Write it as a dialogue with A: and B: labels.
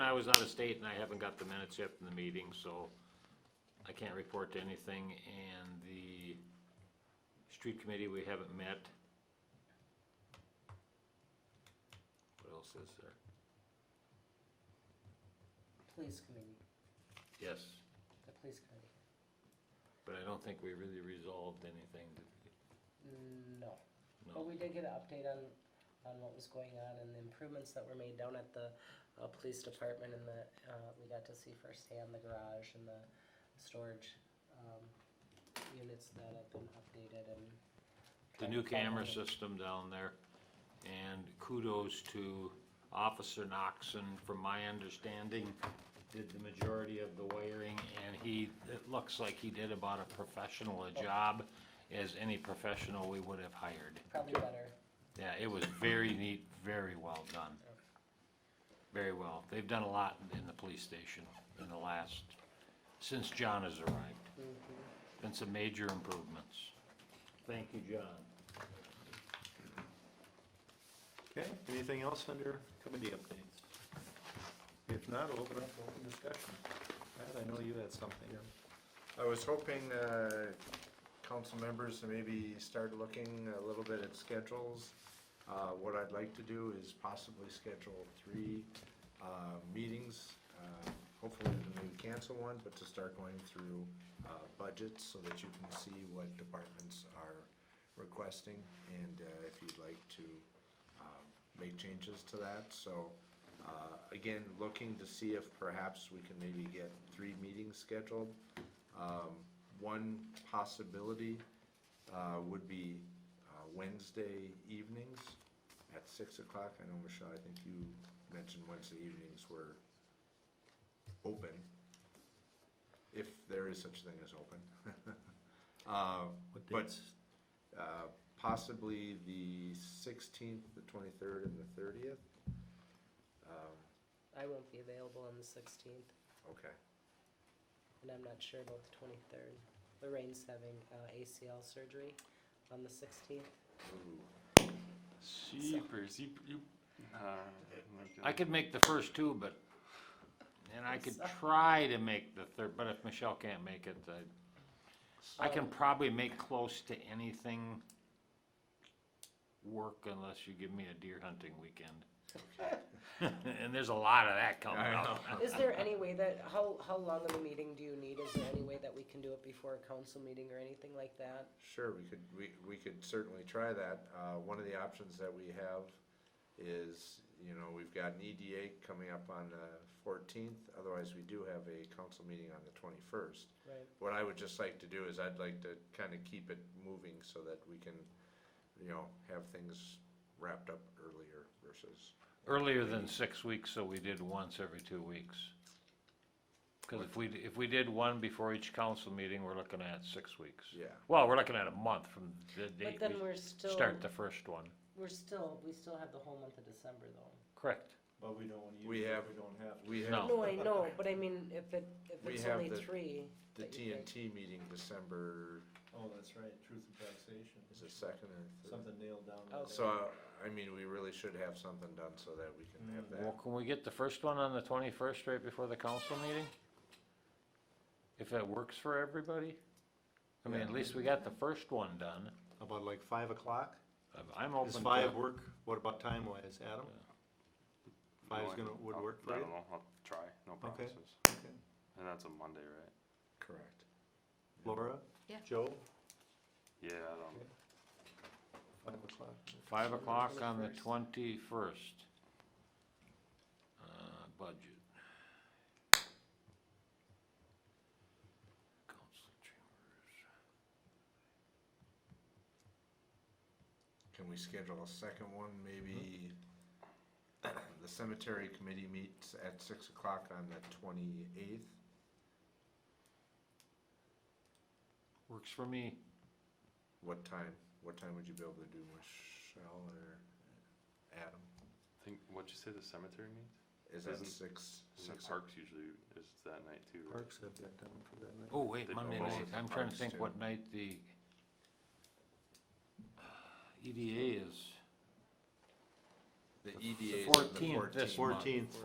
A: I was out of state and I haven't got the minutes yet from the meeting, so I can't report to anything. And the street committee, we haven't met. What else is there?
B: Police committee,
A: Yes,
B: the police committee,
A: but I don't think we really resolved anything, did we?
B: Mm, no. But
A: No.
B: we did get an update on, on what was going on and the improvements that were made down at the, uh, police department and the, uh, we got to see firsthand the garage and the storage, um, units that have been updated and.
A: the new camera system down there. And kudos to Officer Noxon, from my understanding, did the majority of the wiring, and he, it looks like he did about a professional a job as any professional we would have hired.
B: Probably better,
A: Yeah, it was very neat, very well done. Very well. They've done a lot in the police station in the last, since John has arrived.
B: Mm-hmm.
A: Been some major improvements. Thank you, John.
C: Okay, anything else under committee updates? If not, we'll open up for open discussion. Matt, I know you had something.
D: I was hoping, uh, council members to maybe start looking a little bit at schedules. Uh, what I'd like to do is possibly schedule three, uh, meetings. Uh, Hopefully we can cancel one, but to start going through, uh, budgets so that you can see what departments are requesting. And, uh, if you'd like to, um, make changes to that, so, uh, again, looking to see if perhaps we can maybe get three meetings scheduled. Um, one possibility, uh, would be, uh, Wednesday evenings at six o'clock, I know Michelle, I think you mentioned Wednesday evenings were open, if there is such a thing as open. Uh,
C: What
D: but
C: dates?
D: uh, possibly the sixteenth, the twenty-third, and the thirtieth.
B: I won't be available on the sixteenth,
D: Okay,
B: and I'm not sure about the twenty-third. Lorraine's having, uh, ACL surgery on the sixteenth.
D: Ooh,
E: Jeepers, you, you, uh, my
A: I
E: God.
A: could make the first two, but, and I could try to make the third, but if Michelle can't make it, I, I can probably make close to anything work unless you give me a deer hunting weekend. And there's a lot of that coming
D: I
A: up.
B: Is there any way that, how, how long of a meeting do you need? Is there any way that we can do it before a council meeting or anything like that?
D: Sure, we could, we, we could certainly try that. Uh, one of the options that we have is, you know, we've got an EDA coming up on the fourteenth, otherwise we do have a council meeting on the twenty-first.
B: Right.
D: What I would just like to do is I'd like to kind of keep it moving so that we can, you know, have things wrapped up earlier versus,
A: Earlier than six weeks, so we did once every two weeks. Cause if we, if we did one before each council meeting, we're looking at six weeks.
D: yeah.
A: Well, we're looking at a month from the
B: But
A: date
B: then
A: we
B: we're still,
A: start the first one.
B: we're still, we still have the whole month of December though.
A: Correct.
C: But we don't
D: use We it, have- we
C: don't have.
D: We have
A: No.
B: No, I know, but I mean, if it, if
D: We
B: it's
D: have
B: only
D: the-
B: three.
D: The
B: that you pick.
D: TNT meeting December
C: Oh, that's right, truth and taxation.
D: is it second or third?
C: nailed down.
B: Oh.
D: So, I mean, we really should have something done so that we can have
A: Well,
D: that.
A: can we get the first one on the twenty-first right before the council meeting? If that works for everybody? I mean, at
C: Yeah.
A: least we got the first one done.
C: About like five o'clock?
A: I'm- I'm
C: Does
A: open
C: five
A: to,
C: work? What about time wise, Adam? Five's gonna, would
E: I'll-
C: work for
E: oh, I
C: you?
E: don't know, I'll try, no
C: Okay.
E: promises.
C: Okay.
E: And that's a Monday, right?
D: Correct.
C: Laura?
F: Yeah.
C: Joe?
E: Yeah, I don't,
C: Five o'clock?
A: five o'clock on the twenty-first. Uh, budget. Council chambers.
D: Can we schedule a second one, maybe? The cemetery committee meets at six o'clock on the twenty-eighth.
A: Works for me.
D: What time, what time would you be able to do, Michelle or Adam?
E: think, what'd you say the cemetery meets?
D: Is that
E: Isn't-
D: six,
E: And
D: six?
E: Parks usually is that night too, right?
C: Parks have that down for that night.
A: Oh, wait,
E: They
A: Monday
E: both
A: night,
D: have
A: I'm trying to
D: parties
A: think
D: too.
A: what night the uh, E EDA is.
D: The
A: The
D: EDA is on
A: 14th
D: the
A: this
D: fourteenth.
A: month.
C: Fourteenth.